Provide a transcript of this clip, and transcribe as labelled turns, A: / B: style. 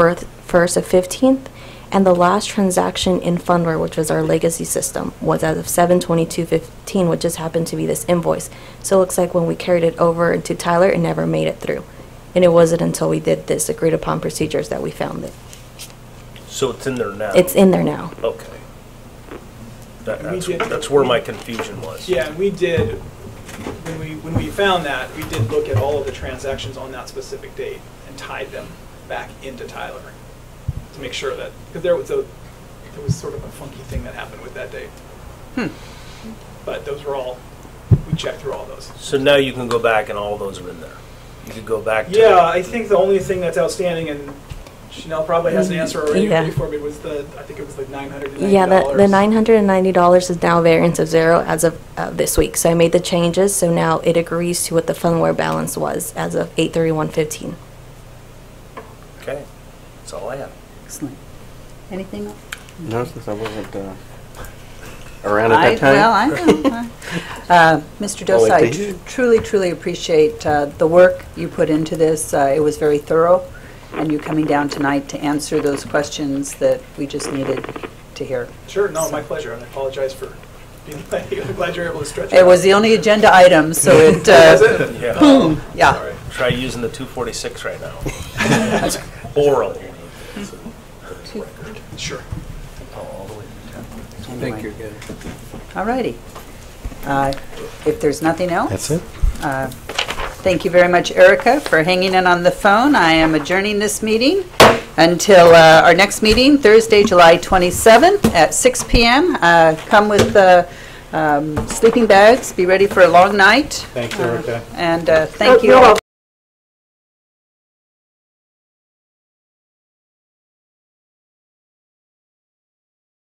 A: birth- 1st of 15th, and the last transaction in Fundware, which was our legacy system, was as of 7/22/15, which just happened to be this invoice. So it looks like when we carried it over into Tyler, it never made it through. And it wasn't until we did this agreed upon procedures that we found it.
B: So it's in there now?
A: It's in there now.
B: Okay. That-
C: We
B: That's,
C: did-
B: that's where my confusion was.
C: Yeah, and we did, when we, when we found that, we did look at all of the transactions on that specific date and tied them back into Tyler to make sure that, because there was a, there was sort of a funky thing that happened with that date. But those were all, we checked through all those.
B: So now you can go back and all those are in there. You could go back to.
C: Yeah, I think the only thing that's outstanding, and Chanel probably has an answer already
A: Yeah.
C: for me, was the, I think it was like nine hundred and ninety dollars.
A: Yeah, the, the $990 is now variance of zero as of uh, this week. So I made the changes, so now it agrees to what the Fundware balance was as of 8/31/15.
B: Okay, that's all I have.
D: Excellent. Anything else?
E: No, since I wasn't uh, around
D: I-
E: at that time.
D: Well, I know. Uh, Mr.
E: Oh,
D: Dose,
E: like
D: I
E: they did.
D: truly, truly appreciate uh, the work you put into this. Uh, It was very thorough, and you coming down tonight to answer those questions that we just needed to hear.
C: Sure, no, my pleasure, and I apologize for being late. I'm glad you were able to stretch it
D: It was
C: out.
D: the only agenda item, so it, uh,
B: Yeah,
D: yeah.
C: Sorry.
B: try using the 246 right now. Oral.
C: Sure.
D: Thank you again. All righty. Uh, If there's nothing else? That's it. Thank you very much, Erica, for hanging in on the phone. I am adjourning this meeting until uh, our next meeting, Thursday, July 27th at 6 PM. Uh, Come with uh, um, sleeping bags, be ready for a long night,
F: Thanks, Erica.
D: and uh, thank you all.